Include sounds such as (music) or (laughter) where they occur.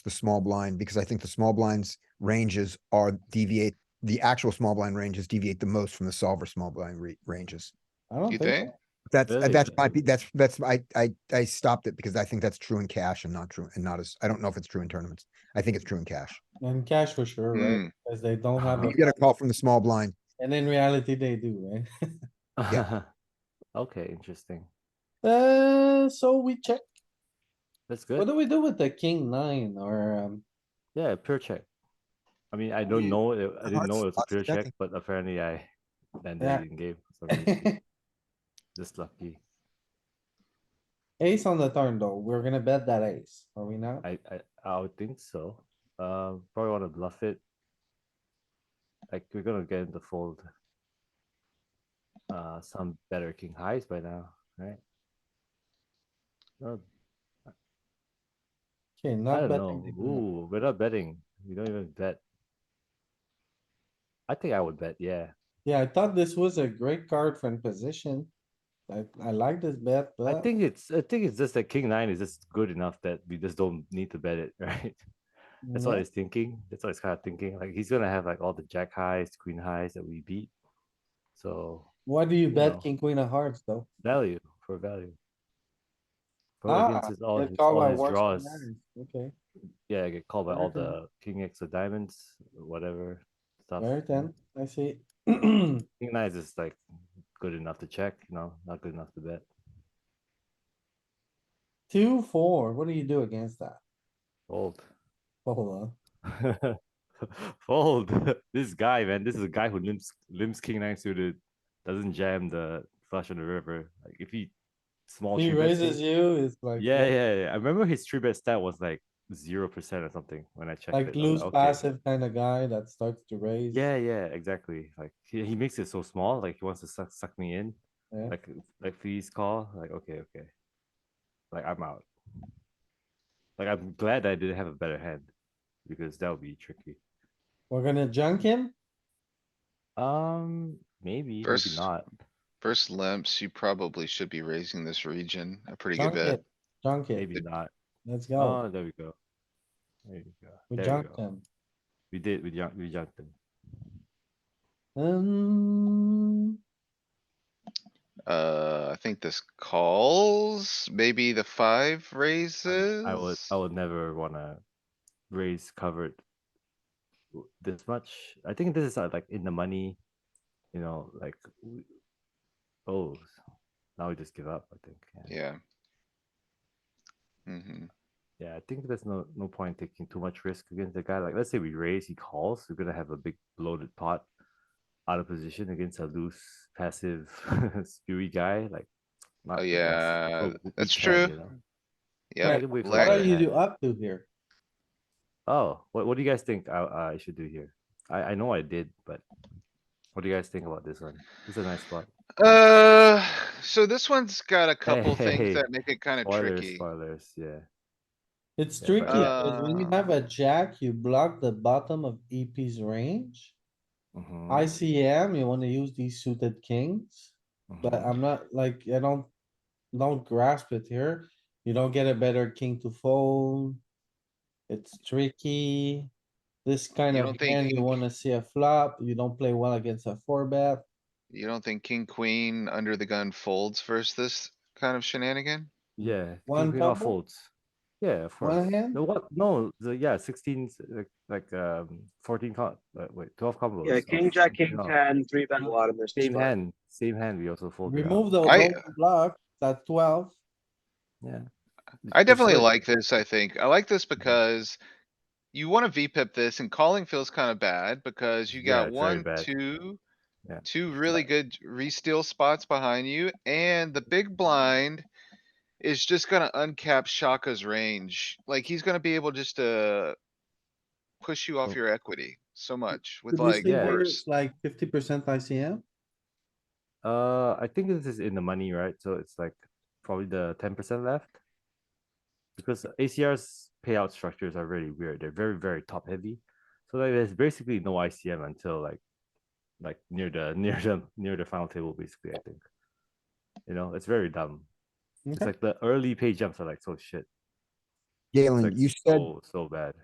the small blind because I think the small blinds ranges are deviate, the actual small blind ranges deviate the most from the solver small blind re- ranges. I don't You think, think? so. That's, Really? that's my, pe- that's, that's, I, I, I stopped it because I think that's true in cash and not true and not as, I don't know if it's true in tournaments. I think it's true in cash. and cash for sure, right? Hmm. Cause they don't have, (laughs) You a get a call from the small blind. and in reality, they do, right? Yeah. (laughs) Okay, interesting. (laughs) Uh, so we check, That's what good. do we do with the king nine or, um, (laughs) Yeah, pure check. I mean, I don't you- know, it- I didn't hearts- know it was a hearts pure check, checking. but apparently I landed Yeah. it in game. for some reason. (laughs) Just lucky. ace on the turn though? We're gonna bet that ace, are we not? I, I, I would think so. Uh, probably wanna bluff it. Like, we're gonna get in the fold. Uh, some better king highs by now, right? Not Okay, I not don't betting. know. the king. Ooh, we're not betting. We don't even bet. I think I would bet, yeah. Yeah, I thought this was a great card for in position. I, I like this bet, I but. think it's, I think it's just that king nine is just good enough that we just don't need to bet it, (laughs) right? That's what no. he's thinking. That's what he's kind of thinking. Like, he's gonna have like all the jack highs, queen highs that we beat. So Why do you No. bet king, queen of hearts though? value for value. But Ah, against his, all they his, call Oh, all my his worst draws, scenarios. Okay, yeah, I get called by all Very the king X of diamonds, whatever stuff. very you know. ten, I see. (clears throat) Okay, King nine is just like good enough to check, you know, not good enough to bet. two, four, what do you do against that? Fold. Hold on. (laughs) Fold. this guy, man, this is a guy who limps limps king nine suited, doesn't jam the flush on the river. Like if he small He three bets raises you- you, it's like. Yeah, yeah, yeah. I remember his three bet stat was like zero percent or something when I checked. Like it. I was loose like, okay. passive kind of guy that starts to raise. Yeah, yeah, exactly. Like he, he makes it so small, like he wants to suck suck me in. Yeah. Like like please call. Like okay, okay. Like I'm out. Like I'm glad I didn't have a better hand because that would be tricky. We're gonna junk him? Um, maybe, maybe First- not. First limps, you probably should be raising this region a pretty good Junk bit. it, junk it, Maybe not. let's go. Oh, there we go. There we go. We there junk go. him. We did. We jumped. We jumped them. Um, Uh, I think this calls, maybe the five raises. I would. I would never wanna raise covered w- this much. I think this is uh, like in the money. You know, like w- oh, now we just give up. I think. Yeah. Yeah. hmm Yeah, I think there's no no point taking too much risk against the guy. Like, let's say we raise, he calls, we're gonna have a big bloated pot out of position against a loose, passive, (laughs) spewy guy. Like, not the best. Oh, yeah, That's what we- we that's can, true. you know? Yeah, Right. Wait for what lag- that. are you do up to here? Oh, what what do you guys think I I should do here? I I know I did, but what do you guys think about this one? It's a nice spot. Uh, so this one's got a couple Hey, things that make it kinda Spoilers, tricky. spoilers. Yeah, It's Yeah, tricky, but- because when you Uh. have a jack, you block the bottom of EP's range. Mhm, ICM, you wanna use these suited kings, but mhm. I'm not, like, I don't, don't grasp it here. You don't get a better king to fold. It's tricky. This kind You of don't think hand, you king- wanna see a flop, you don't play well against a four bet. You don't think king, queen, under the gun folds versus this kind of shenanigan? Yeah, king, One queen off couple? folds. Yeah, of One course. hand? No, what? No, the yeah, sixteen, like, like um, fourteen. Com- uh, wait, twelve combos. Yeah, of king, jack, king off. ten, three bet bottom, there's. Same hand, same hand. We also fold. it up. Remove the I- open block, that twelve. Yeah. I definitely Prefer- like this, I think. I like Mm-hmm. this because you wanna VPip this and calling feels kinda bad because you got Yeah, it's very one, bad. two, Yeah. two really good re-steal spots behind you and the big blind is just gonna uncap Shaka's range. Like, he's gonna be able just to push you Oh. off your equity so much with Could we like say Yeah. we're worse. Like fifty percent ICM? Uh, I think this is in the money, right? So it's like probably the ten percent left. Because ACR's payout structures are really weird. They're very, very top heavy. So like, there's basically no ICM until like, like near the (laughs) near the near the final table, basically. I think. You know, it's very dumb. It's Okay. like the early pay jumps are like so shit. It's, Galen, like, you said so, so bad.